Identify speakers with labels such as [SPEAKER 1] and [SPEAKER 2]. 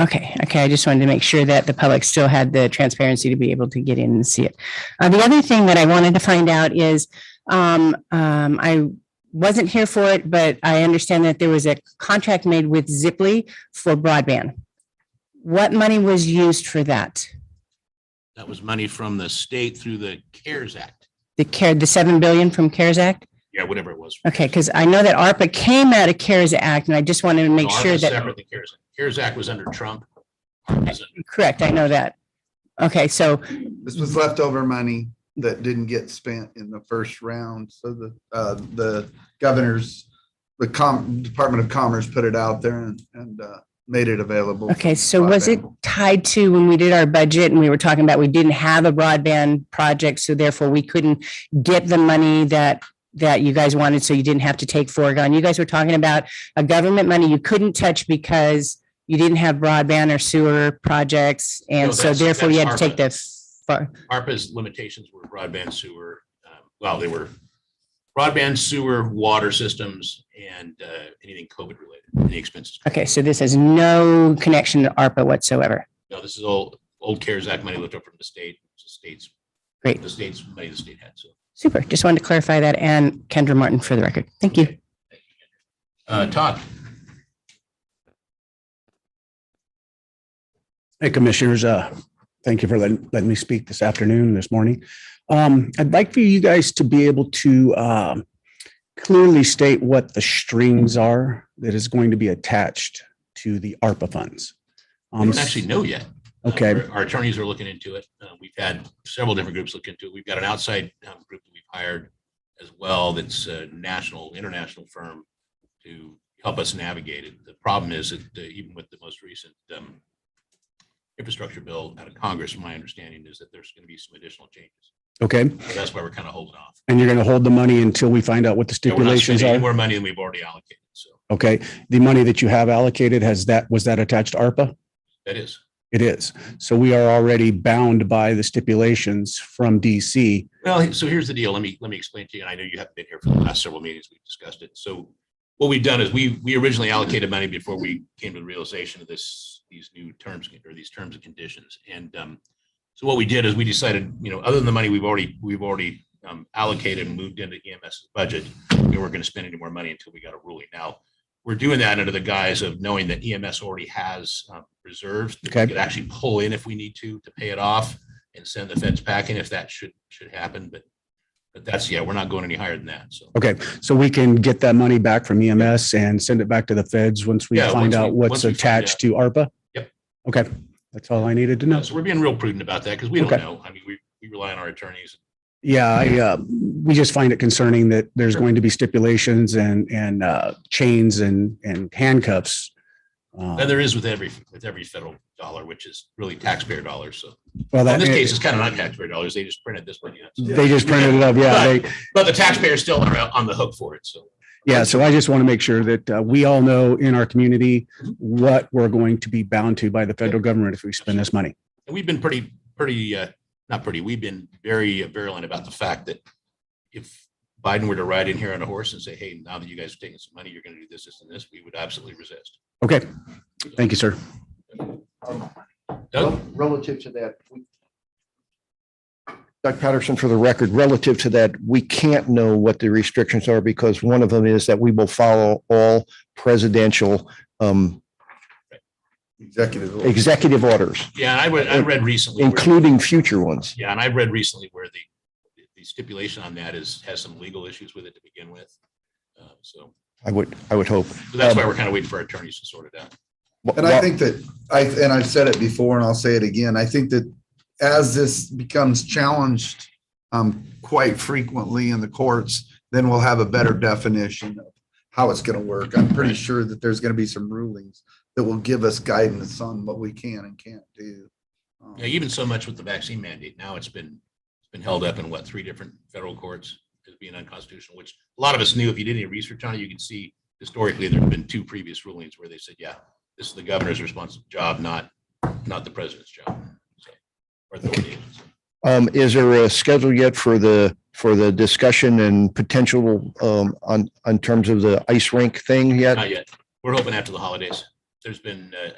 [SPEAKER 1] Okay, okay. I just wanted to make sure that the public still had the transparency to be able to get in and see it. Uh, the other thing that I wanted to find out is, um, um, I wasn't here for it, but I understand that there was a contract made with Zipley for broadband. What money was used for that?
[SPEAKER 2] That was money from the state through the CARES Act.
[SPEAKER 1] The care, the seven billion from CARES Act?
[SPEAKER 2] Yeah, whatever it was.
[SPEAKER 1] Okay, because I know that ARPA came out of CARES Act and I just wanted to make
[SPEAKER 2] No,
[SPEAKER 1] sure
[SPEAKER 2] ARPA's
[SPEAKER 1] that.
[SPEAKER 2] separate than CARES Act. CARES Act was under Trump. ARPA's under-
[SPEAKER 1] Correct, I know that. Okay, so,
[SPEAKER 3] This was leftover money that didn't get spent in the first round. So the, uh, the governor's, the com, Department of Commerce put it out there and, and, uh, made it available. for
[SPEAKER 1] okay, so was it
[SPEAKER 3] broadband.
[SPEAKER 1] tied to when we did our budget and we were talking about we didn't have a broadband project, so therefore we couldn't get the money that, that you guys wanted, so you didn't have to take foregone. You guys were talking about a government money you couldn't touch because you didn't have broadband or sewer projects,
[SPEAKER 2] No,
[SPEAKER 1] and so
[SPEAKER 2] that's-
[SPEAKER 1] therefore you had to take
[SPEAKER 2] that's
[SPEAKER 1] the. fu-
[SPEAKER 2] ARPA's limitations were broadband sewer, um, well, they were broadband sewer, water systems, and uh, anything COVID related, any expenses.
[SPEAKER 1] Okay, so this has no connection to ARPA whatsoever.
[SPEAKER 2] No, this is old, old CARES Act money left up from the state, the state's.
[SPEAKER 1] Great.
[SPEAKER 2] The state's money the state had, so.
[SPEAKER 1] Super, just wanted to clarify that, and Kendra Martin for the record. Thank you.
[SPEAKER 2] Uh, Todd?
[SPEAKER 4] Hey, Commissioners, uh, thank you for letting, letting me speak this afternoon, this morning. Um, I'd like for you guys to be able to, um, clearly state what the strings are that is going to be attached to the ARPA funds.
[SPEAKER 2] We
[SPEAKER 4] Um,
[SPEAKER 2] don't actually know yet. Uh,
[SPEAKER 4] Okay.
[SPEAKER 2] our- Our attorneys are looking into it. Uh, We've had several different groups look into it. We've got an outside um, group that we've hired as well that's a national, international firm to help us navigate it. The problem is that uh, even with the most recent um, infrastructure bill out of Congress, my understanding is that there's going to be some additional changes.
[SPEAKER 4] okay,
[SPEAKER 2] So That's why we're kind of holding off.
[SPEAKER 4] and you're going to hold the money until we find out what the
[SPEAKER 2] Yeah, We're not
[SPEAKER 4] stipulations
[SPEAKER 2] spending any
[SPEAKER 4] are?
[SPEAKER 2] more money than we've already allocated. So
[SPEAKER 4] Okay, the money that you have allocated, has that, was that attached to ARPA?
[SPEAKER 2] that is.
[SPEAKER 4] It is. So we are already bound by the stipulations from DC.
[SPEAKER 2] Well, so here's the deal. Let me, let me explain to you. And I know you haven't been here for the last several meetings. We've discussed it. So what we've done is we, we originally allocated money before we came to the realization of this, these new terms or these terms and conditions. And um, so what we did is we decided, you know, other than the money we've already, we've already um, allocated and moved into EMS budget, we weren't going to spend any more money until we got a ruling. Now, we're doing that under the guise of knowing that EMS already has uh, reserves. that we
[SPEAKER 4] Okay.
[SPEAKER 2] Could actually pull in if we need to, to pay it off and send the feds packing if that should, should happen, but, but that's, yeah, we're not going any higher than that, so.
[SPEAKER 4] Okay, so we can get that money back from EMS and send it back to the feds once we
[SPEAKER 2] Yeah, once
[SPEAKER 4] find
[SPEAKER 2] we-
[SPEAKER 4] out
[SPEAKER 2] once
[SPEAKER 4] what's
[SPEAKER 2] we find
[SPEAKER 4] attached to ARPA?
[SPEAKER 2] Yep.
[SPEAKER 4] Okay, that's all I needed to know.
[SPEAKER 2] So we're being real prudent about that, because we don't
[SPEAKER 4] Okay.
[SPEAKER 2] know, I mean, we, we rely on our attorneys.
[SPEAKER 4] Yeah, I, uh, we just find it concerning that there's going to be stipulations and, and, uh, chains and, and handcuffs. Uh,
[SPEAKER 2] And there is with every, with every federal dollar, which is really taxpayer dollars, so.
[SPEAKER 4] Well,
[SPEAKER 2] In
[SPEAKER 4] that,
[SPEAKER 2] this case, it's kind of not taxpayer dollars, they just printed this money. out, so.
[SPEAKER 4] they just printed it up. Yeah, they,
[SPEAKER 2] But the taxpayers still are uh, on the hook for it, so.
[SPEAKER 4] Yeah, so I just want to make sure that uh, we all know in our community what we're going to be bound to by the federal government if we spend this money.
[SPEAKER 2] And we've been pretty, pretty, uh, not pretty, we've been very virulent about the fact that if Biden were to ride in here on a horse and say, hey, now that you guys are taking some money, you're going to do this, this, and this, we would absolutely resist.
[SPEAKER 4] Okay, thank you, sir.
[SPEAKER 2] Doug?
[SPEAKER 5] Relative to that. we- Doug Patterson, for the record, relative to that, we can't know what the restrictions are because one of them is that we will follow all presidential um,
[SPEAKER 3] Executive. order.
[SPEAKER 5] executive orders,
[SPEAKER 2] Yeah, and I read, I read recently, where-
[SPEAKER 5] including future ones.
[SPEAKER 2] yeah, and I read recently where the, the stipulation on that is, has some legal issues with it to begin with. Uh, So
[SPEAKER 5] I would, I would hope.
[SPEAKER 2] so that's why we're kind of waiting for our attorneys to sort it out.
[SPEAKER 3] And I think that I, and I've said it before and I'll say it again, I think that as this becomes challenged um, quite frequently in the courts, then we'll have a better definition of how it's going to work. I'm pretty sure that there's going to be some rulings that will give us guidance on what we can and can't do. Um,
[SPEAKER 2] Yeah, even so much with the vaccine mandate, now it's been, it's been held up in what, three different federal courts as being unconstitutional, which a lot of us knew. If you did any research on it, you could see historically, there have been two previous rulings where they said, yeah, this is the governor's responsible job, not, not the president's job. So, or authority.
[SPEAKER 5] Um, Is there a schedule yet for the, for the discussion and potential um, on, on terms of the ice rink thing yet?
[SPEAKER 2] Not yet. We're hoping after the holidays. There's been uh,